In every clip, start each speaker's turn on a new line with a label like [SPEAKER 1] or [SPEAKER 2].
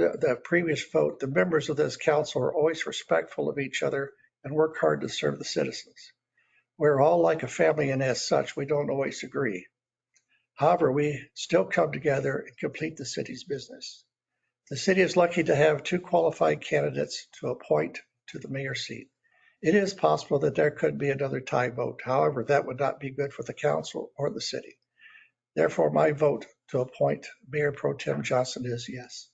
[SPEAKER 1] the the previous vote, the members of this council are always respectful of each other and work hard to serve the citizens. We're all like a family and as such, we don't always agree. However, we still come together and complete the city's business. The city is lucky to have two qualified candidates to appoint to the mayor seat. It is possible that there could be another tie vote. However, that would not be good for the council or the city. Therefore, my vote to appoint Mayor Pro Tem Johnson is yes.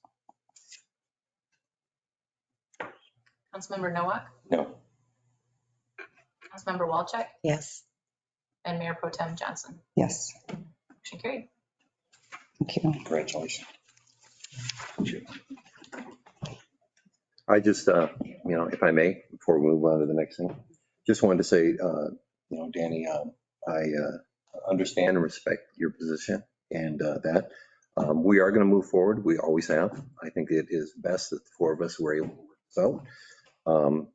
[SPEAKER 2] Councilmember Nowak,
[SPEAKER 3] No.
[SPEAKER 2] Councilmember Walchek,
[SPEAKER 4] Yes.
[SPEAKER 2] and Mayor Pro Tem Johnson.
[SPEAKER 4] Yes.
[SPEAKER 2] Motion carried.
[SPEAKER 4] Thank you.
[SPEAKER 3] Congratulations.
[SPEAKER 5] I just, uh, you know, if I may, before we move on to the next thing, just wanted to say, uh, you know, Danny, um, I uh, understand and respect your position and uh, that. Um, We are going to move forward. We always have. I think it is best that the four of us were able to work this out. Um,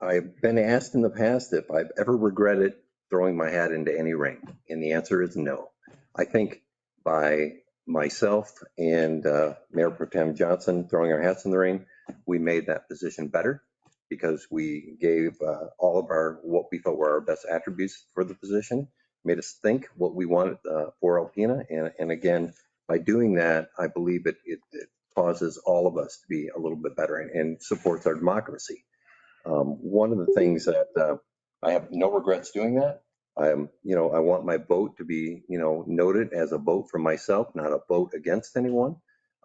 [SPEAKER 5] I've been asked in the past if I've ever regretted throwing my hat into any ring, and the answer is no. I think by myself and uh, Mayor Pro Tem Johnson throwing our hats in the ring, we made that position better because we gave uh, all of our, what we felt were our best attributes for the position, made us think what we wanted uh, for Alpena. And, and again, by doing that, I believe it, it it causes all of us to be a little bit better and- and supports our democracy. Um, One of the things that uh, I have no regrets doing that. I'm, you know, I want my vote to be, you know, noted as a vote for myself, not a vote against anyone.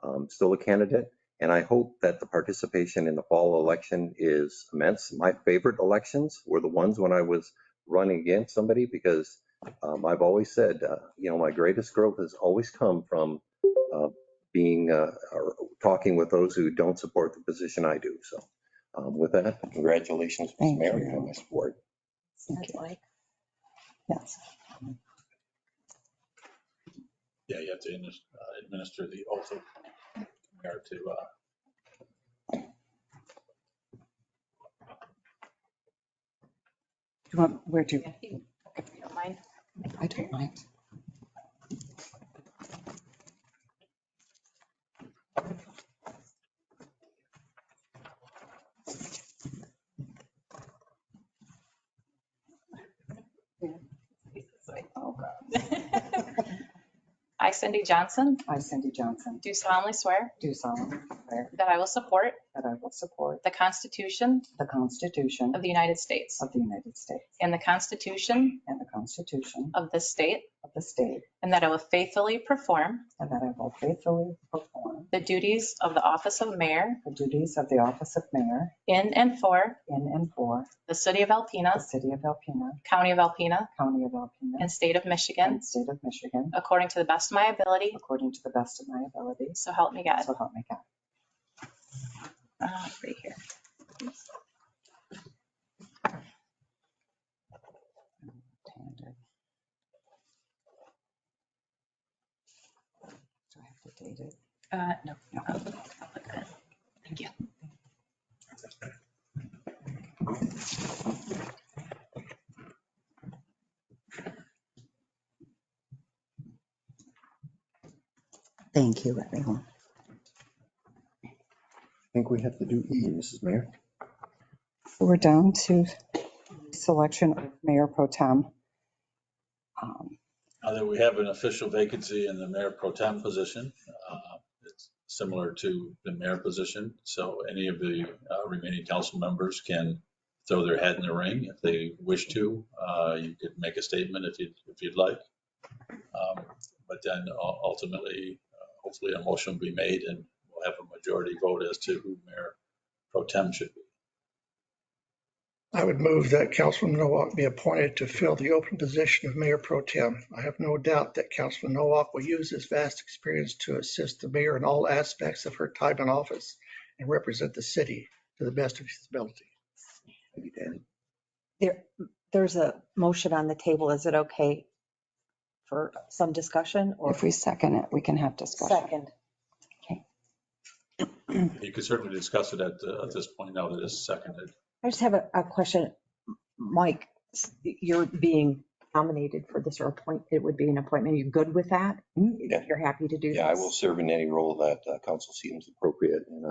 [SPEAKER 5] I'm Still a candidate. And I hope that the participation in the fall election is immense. My favorite elections were the ones when I was running against somebody because um, I've always said, uh, you know, my greatest growth has always come from uh, being, uh, or talking with those who don't support the position I do. So um, with that,
[SPEAKER 3] Congratulations, Ms.
[SPEAKER 4] Thank
[SPEAKER 3] Mayor.
[SPEAKER 4] you.
[SPEAKER 3] You have my support.
[SPEAKER 4] Thank you. Yes.
[SPEAKER 6] Yeah, you have to adminis- uh, administer the oath of mayor to, uh,
[SPEAKER 4] Do you want, where do,
[SPEAKER 2] If you don't mind.
[SPEAKER 4] I don't mind.
[SPEAKER 2] I, Cindy Johnson,
[SPEAKER 4] I, Cindy Johnson,
[SPEAKER 2] do solemnly swear
[SPEAKER 4] do solemnly swear
[SPEAKER 2] that I will support
[SPEAKER 4] that I will support
[SPEAKER 2] the Constitution
[SPEAKER 4] the Constitution
[SPEAKER 2] of the United States
[SPEAKER 4] of the United States
[SPEAKER 2] and the Constitution
[SPEAKER 4] and the Constitution
[SPEAKER 2] of the state,
[SPEAKER 4] of the state,
[SPEAKER 2] and that I will faithfully perform
[SPEAKER 4] and that I will faithfully perform
[SPEAKER 2] the duties of the office of mayor
[SPEAKER 4] the duties of the office of mayor
[SPEAKER 2] in and for
[SPEAKER 4] in and for
[SPEAKER 2] the city of
[SPEAKER 4] the
[SPEAKER 2] Alpena,
[SPEAKER 4] city of Alpena,
[SPEAKER 2] county of Alpena,
[SPEAKER 4] county of Alpena,
[SPEAKER 2] and state of Michigan,
[SPEAKER 4] and state of Michigan,
[SPEAKER 2] according to the best of my ability,
[SPEAKER 4] according to the best of my ability.
[SPEAKER 2] so help me God.
[SPEAKER 4] So help me God.
[SPEAKER 2] Uh, Right here.
[SPEAKER 4] Left-handed. Do I have to date it?
[SPEAKER 2] Uh, No,
[SPEAKER 4] No.
[SPEAKER 2] I'll I'll put that. Thank you.
[SPEAKER 4] Thank you, everyone.
[SPEAKER 5] I think we have to do E, Mrs. Mayor.
[SPEAKER 4] We're down to selection of mayor pro tem. Um,
[SPEAKER 6] now that we have an official vacancy in the mayor pro tem position, uh, it's similar to the mayor position. So any of the uh, remaining council members can throw their hat in the ring if they wish to. Uh, You could make a statement if you'd, if you'd like. Um, But then u- ultimately, uh, hopefully a motion will be made and we'll have a majority vote as to who mayor pro tem should be.
[SPEAKER 1] I would move that Councilman Nowak be appointed to fill the open position of Mayor Pro Tem. I have no doubt that Councilman Nowak will use his vast experience to assist the mayor in all aspects of her time in office and represent the city to the best of his ability.
[SPEAKER 5] Thank you, Danny.
[SPEAKER 7] there's a motion on the table. Is it okay for some discussion or
[SPEAKER 4] If we second it, we can have discussion.
[SPEAKER 7] second?
[SPEAKER 6] You could certainly discuss it at, the- at this point now that it's seconded.
[SPEAKER 7] I just have a, a question. Mike, s- you're being nominated for this or appoint, it would be an appointment. You're good with that?
[SPEAKER 5] Mm-hmm. Yeah.
[SPEAKER 7] You're happy to do this?
[SPEAKER 5] Yeah, I will serve in any role that uh, council seems appropriate, and